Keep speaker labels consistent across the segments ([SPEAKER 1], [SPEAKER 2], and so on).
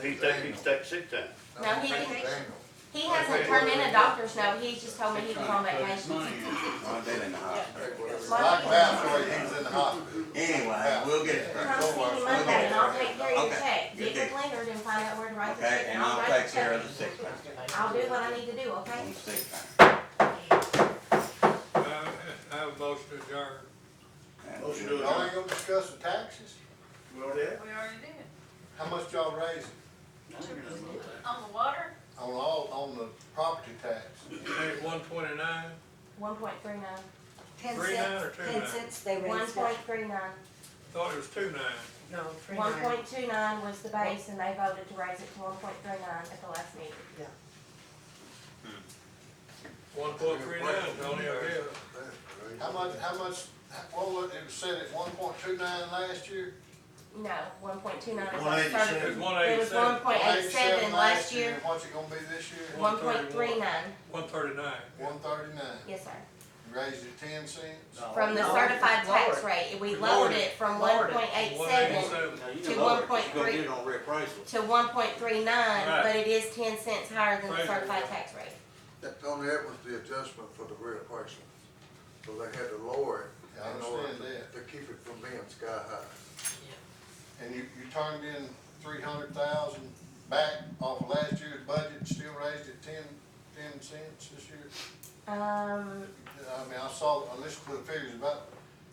[SPEAKER 1] He take, he take sick time.
[SPEAKER 2] No, he- He hasn't turned in a doctor's note, he just told me he was on vacation.
[SPEAKER 3] I've been in the hospital.
[SPEAKER 2] Monday.
[SPEAKER 4] Like last week, he was in the hospital.
[SPEAKER 3] Anyway, we'll get it.
[SPEAKER 2] Come see me Monday and I'll take care of your
[SPEAKER 3] Okay,
[SPEAKER 2] check.
[SPEAKER 3] good
[SPEAKER 2] Get
[SPEAKER 3] deal.
[SPEAKER 2] with Leonard and find out where to write the check.
[SPEAKER 3] Okay, and I'll
[SPEAKER 2] write the
[SPEAKER 3] take care of
[SPEAKER 2] check.
[SPEAKER 3] the six pack,
[SPEAKER 2] I'll do what I need to do, okay?
[SPEAKER 3] on the six pack.
[SPEAKER 5] I I have a motion to adjourn.
[SPEAKER 3] Motion
[SPEAKER 4] Y'all ain't gonna discuss the taxes?
[SPEAKER 1] We already had.
[SPEAKER 6] We already did.
[SPEAKER 4] How much y'all raising
[SPEAKER 6] On the water,
[SPEAKER 4] on all, on the property tax?
[SPEAKER 5] There's one twenty-nine,
[SPEAKER 2] One point three nine.
[SPEAKER 7] Ten
[SPEAKER 5] Three nine or
[SPEAKER 7] cents,
[SPEAKER 5] two
[SPEAKER 7] ten
[SPEAKER 5] nine?
[SPEAKER 7] cents, they
[SPEAKER 2] One
[SPEAKER 7] raised
[SPEAKER 2] point
[SPEAKER 7] that.
[SPEAKER 2] three nine.
[SPEAKER 5] thought it was two nine.
[SPEAKER 7] No, three
[SPEAKER 2] One
[SPEAKER 7] nine.
[SPEAKER 2] point two nine was the base and they voted to raise it to one point three nine at the last meeting.
[SPEAKER 5] One point three nine, Tony, I guess.
[SPEAKER 4] How much, how much, what was, it was said at one point two nine last year?
[SPEAKER 2] No, one point two nine is
[SPEAKER 1] 187.
[SPEAKER 5] It was
[SPEAKER 2] started.
[SPEAKER 5] one
[SPEAKER 2] It was one
[SPEAKER 5] eighty-seven,
[SPEAKER 2] point eight seven
[SPEAKER 4] 187
[SPEAKER 2] last year,
[SPEAKER 4] and What's it gonna be this year?
[SPEAKER 2] one point three nine,
[SPEAKER 5] one thirty-nine.
[SPEAKER 4] One thirty-nine,
[SPEAKER 2] yes, sir.
[SPEAKER 4] raised it ten cents?
[SPEAKER 2] From the
[SPEAKER 7] No,
[SPEAKER 2] certified tax
[SPEAKER 7] lower.
[SPEAKER 2] rate, we
[SPEAKER 5] We
[SPEAKER 2] lowered
[SPEAKER 5] lowered
[SPEAKER 2] it from one
[SPEAKER 7] Lowered it.
[SPEAKER 2] point eight
[SPEAKER 5] One
[SPEAKER 2] seven
[SPEAKER 5] eighty-seven.
[SPEAKER 2] to one point three,
[SPEAKER 1] on reappraisal.
[SPEAKER 2] to one point three nine,
[SPEAKER 5] Right.
[SPEAKER 2] but it is ten cents higher than the
[SPEAKER 5] Right.
[SPEAKER 2] certified tax rate.
[SPEAKER 8] That only that was the adjustment for the real person, so they had to lower
[SPEAKER 4] I
[SPEAKER 8] it in order
[SPEAKER 4] understand that.
[SPEAKER 8] to, to keep it from being sky high.
[SPEAKER 4] And you, you turned in three hundred thousand back off of last year's budget, still raised it ten, ten cents this year?
[SPEAKER 2] Um,
[SPEAKER 4] I mean, I saw, I listened to the figures, about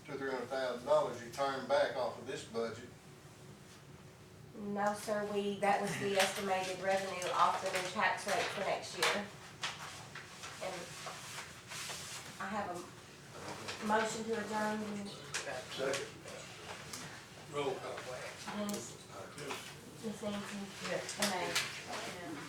[SPEAKER 4] two, three hundred thousand dollars you turned back off of this budget.
[SPEAKER 2] no, sir, we, that was the estimated revenue off the new tax rate for next year. And I have a motion to adjourn,
[SPEAKER 8] Second.
[SPEAKER 5] Roll call.
[SPEAKER 2] Dennis, Ms. Nancy, and I.
[SPEAKER 6] and